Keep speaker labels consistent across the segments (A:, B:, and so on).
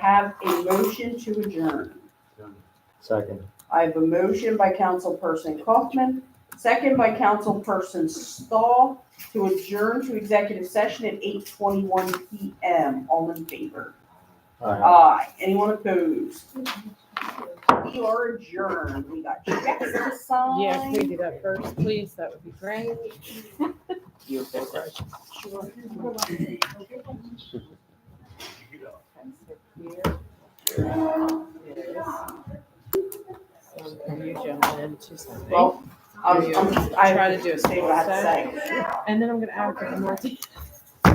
A: have a motion to adjourn.
B: Second.
A: I have a motion by Councilperson Kaufman, second by Councilperson Stahl to adjourn to executive session at eight twenty-one PM. All in favor?
B: Aye.
A: Aye. Anyone opposed? We are adjourned. We got checks to sign.
C: Yeah, can we do that first, please? That would be great.
A: You're so right.
C: Um, You jump in to something.
A: Well, I'm, I'm just, I
C: Try to do it
A: say what I have to say.
C: And then I'm gonna add a couple more. things.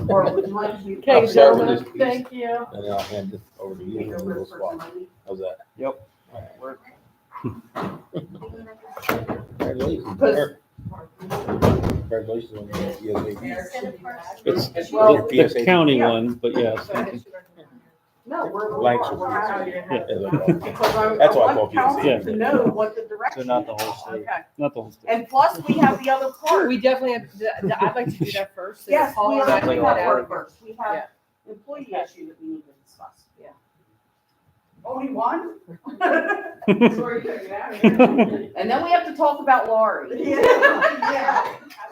A: Or would you like to-
D: Start
C: Okay,
D: with
C: gentlemen,
D: this piece.
C: thank you.
D: And I'll hand this over to you
A: Take
D: in a little
A: over for
D: spot.
A: money.
D: How's that?
B: Yep.
D: Work. Congratulations.
A: Cause-
D: Congratulations on your ESAP.
E: It's
D: It's
A: Well-
E: the
D: your PSAP.
E: county
A: Yeah.
E: one, but yes.
A: No, we're, we're,
D: Like-
A: we're out of here.
D: Yeah, that's all.
A: Because I, I
D: That's why I
A: want
D: called you to
E: see.
A: council to know what the direction
E: So
A: is.
E: not the whole state.
A: Okay,
E: Not the whole state.
A: and plus we have the other part.
C: We definitely have, the- the- I'd like to do that first. so
A: Yes,
C: Paul
A: we
C: and I
A: have,
C: can
A: we
C: get
A: have
C: out.
A: workers, we have employee issue that we need to discuss.
C: Yeah.
A: Only one?
E: here.
A: And then we have to talk about Laurie.
F: Yeah. I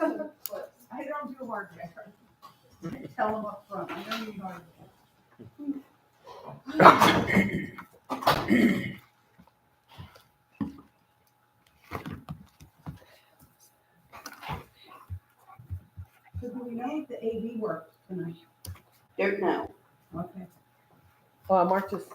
F: don't do hard labor. Tell them up front. I don't need hard labor. So do we know if the AV works tonight?
A: Don't know.
F: Okay.
C: Well, Mark just